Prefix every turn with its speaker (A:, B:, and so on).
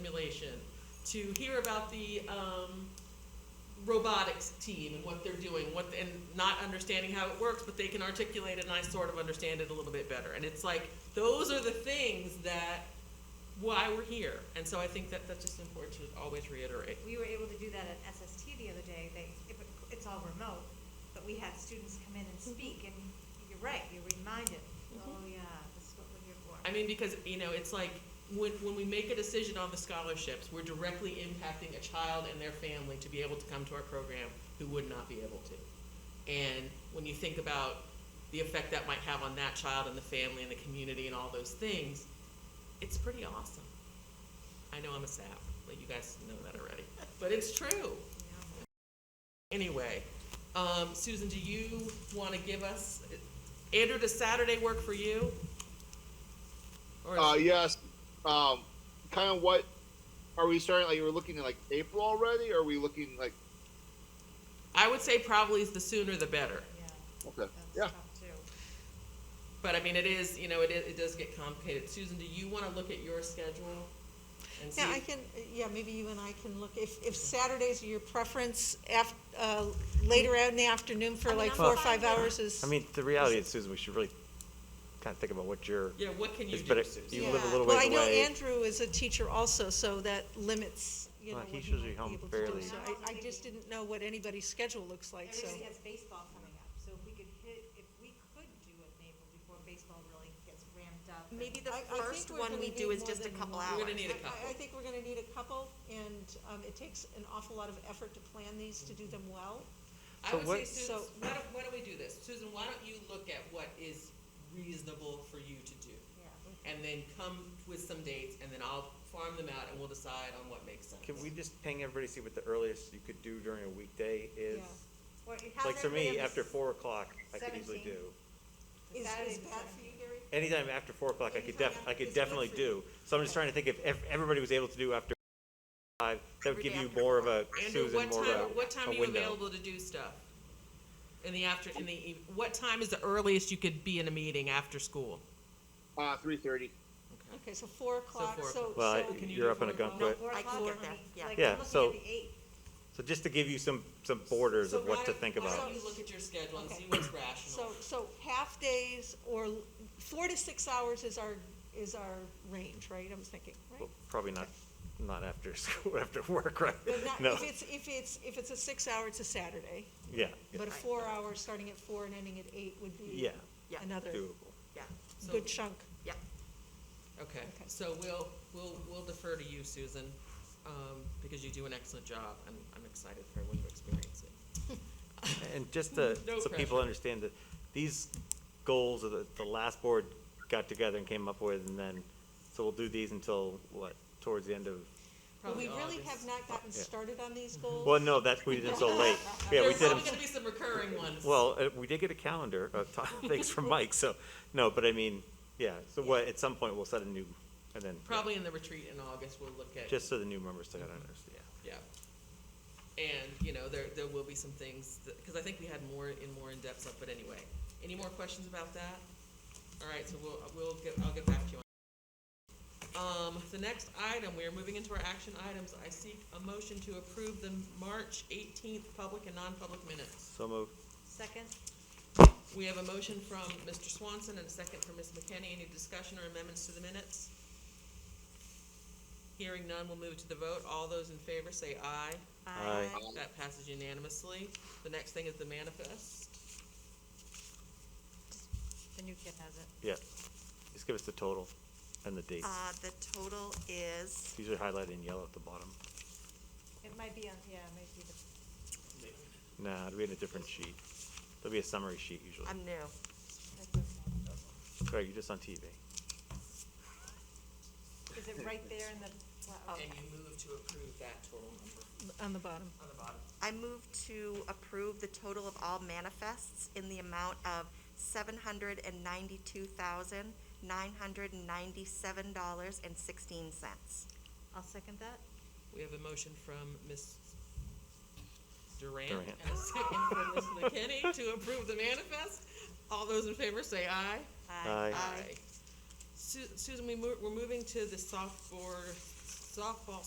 A: simulation, to hear about the um, robotics team and what they're doing, what and not understanding how it works, but they can articulate it, and I sort of understand it a little bit better. And it's like those are the things that why we're here, and so I think that that's just important to always reiterate.
B: We were able to do that at SST the other day. They, if it- it's all remote, but we had students come in and speak, and you're right, you're reminded, oh yeah, this is what we're here for.
A: I mean, because, you know, it's like, when, when we make a decision on the scholarships, we're directly impacting a child and their family to be able to come to our program who would not be able to. And when you think about the effect that might have on that child and the family and the community and all those things, it's pretty awesome. I know I'm a sap, but you guys know that already, but it's true. Anyway, um, Susan, do you wanna give us, Andrew, does Saturday work for you? Or-
C: Uh, yes. Um, kind of what are we starting? Like, we're looking at like April already, or are we looking like
A: I would say probably the sooner the better.
B: Yeah,
C: okay? Yeah.
B: that's tough too.
A: But I mean, it is, you know, it, is- it does get complicated. Susan, do you want to look at your schedule? and see
D: Yeah, I
A: if-
D: can, yeah, maybe you and I can look, if, if Saturdays are your preference, af, uh, later out in the afternoon
B: I
D: for
B: mean,
D: like
B: I'm
D: four or
B: fine
D: five
B: with-
D: hours is.
E: I mean, the reality is, Susan, we should really kind of think about what your,
A: Yeah, what can you
E: It's
A: do,
E: better-
A: Susan?
E: you live a
D: Yeah.
E: little
D: Well,
E: ways
D: I know
E: away.
D: Andrew is a teacher also, so that limits, you know,
E: Well,
D: what
E: he's
D: he might
E: usually
D: be
E: home
D: able to do.
E: fairly-
D: So I, I just didn't know what anybody's schedule looks like, so.
B: Everybody has baseball coming up, so if we could hit, if we could do it in April before baseball really gets ramped up. and-
F: Maybe the
D: I- I think
F: first
D: we're
F: one
D: gonna need
F: we do is
D: more
F: just a
D: than
F: couple
D: one.
F: hours.
A: We're gonna need a
D: I, I
A: couple.
D: think we're gonna need a couple, and, um, it takes an awful lot of effort to plan these, to do them well.
A: I
E: So
A: would say,
E: what-
A: Susan,
D: so-
A: why don't, why don't we do this? Susan, why don't you look at what is reasonable for you to do?
B: Yeah.
A: And then come with some dates, and then I'll farm them out, and we'll decide on what makes sense.
E: can we just ping everybody, see what the earliest you could do during a weekday is?
D: Yeah.
B: Or it- how's
E: Like for
B: everybody
E: me,
B: on the
E: after
B: s-
E: four o'clock, I could easily
B: 17th?
E: do.
B: the
D: Is,
B: Saturday
D: is
B: before?
D: bad for you, Gary?
E: Anytime after four o'clock, I could
D: Anytime
E: def,
D: after-
E: I
D: is
E: could
D: good
E: definitely
D: for
E: do. So I'm just trying to think if ev- everybody was able to do after five, that would
F: Every
E: give
F: day
E: you
F: after
E: more of a,
A: Andrew,
E: Susan,
A: what
E: more of
A: time,
E: a,
A: what time
E: a
A: are you
E: window.
A: available to do stuff? In the after, in the, eve- what time is the earliest you could be in a meeting after school?
C: Uh, three thirty.
D: Okay, so four o'clock,
A: four
D: so,
A: o'clock.
E: Well,
D: so-
E: I-
A: Can you
E: you're
A: do
E: up on a
A: four
E: gun
A: o'clock?
B: No,
E: quick.
B: four
F: I
B: o'clock,
F: can
B: we're
F: get there,
B: looking,
F: yeah.
B: like,
E: Yeah,
B: I'm looking
E: so-
B: at the eight.
E: So just to give you some, some borders
A: So
E: of what
A: why
E: to
A: don't-
E: think
A: Why
E: about.
A: don't you look at your schedule and
D: Okay.
A: see what's rational?
D: so, so half days or l- four to six hours is our, is our range, right, I'm thinking, right?
E: Well, Probably not, not after school, after work, right?
D: But not,
E: No,
D: if it's, if it's, if it's a six hour, it's a Saturday,
E: yeah, yeah,
D: but a four hour, starting at four and ending at eight would be
E: Yeah.
F: Yeah.
D: another
E: doable.
F: Yeah,
A: So-
D: good chunk.
F: yeah.
A: Okay,
D: Okay.
A: so we'll, we'll, we'll defer to you, Susan, um, because you do an excellent job, and I'm excited for everyone to experience it.
E: And just to,
A: No
E: so
A: pressure.
E: people understand that these goals are the, the last board got together and came up with, and then, so we'll do these until, what, towards the end of,
D: Well,
A: Probably
D: we really
A: August.
D: have not gotten
E: Yeah. Mm-hmm.
D: started on these goals.
E: well, no, that's, we did it so late. Yeah, we
A: There's
E: did them,
A: probably gonna be some recurring ones.
E: well, uh, we did get a calendar, uh, t- thanks for Mike, so, no, but I mean, yeah, so what, at some point, we'll set a new, and then, yeah,
A: Probably in the retreat in August, we'll look at,
E: just so the new members to understand,
A: yeah.
E: yeah.
A: And, you know, there, there will be some things, that because I think we had more, in more in-depth stuff, but anyway. Any more questions about that? All right, so we'll, we'll get, I'll get back to you. on Um, the next item, we are moving into our action items. I seek a motion to approve the March eighteenth public and non-public minutes.
E: So moved.
B: Second?
A: We have a motion from Mr. Swanson and a second from Ms. McKenney. Any discussion or amendments to the minutes? Hearing none, we'll move to the vote. All those in favor say aye.
E: Aye.
A: That passes unanimously. The next thing is the manifest.
B: The new kid has it.
E: Yeah, just give us the total and the dates.
F: Uh, the total is,
E: These are highlighted in yellow at the bottom.
B: It might be on, yeah, it might be the.
E: Nah, it'll be in a different sheet. There'll be a summary sheet usually.
F: I'm new.
E: Craig, you're just on TV.
B: Is it right there in the, wow,
A: And you move to approve that total number
D: On the bottom.
A: on the bottom.
F: I move to approve the total of all manifests in the amount of seven hundred and ninety-two thousand, nine hundred and ninety-seven dollars and sixteen cents.
B: I'll second that.
A: We have a motion from Ms. Durant
E: Durant.
A: and a second from Ms. McKinney to approve the manifest. All those in favor say aye.
E: Aye.
A: Su- Susan, we mo- we're moving to the sophomore, softball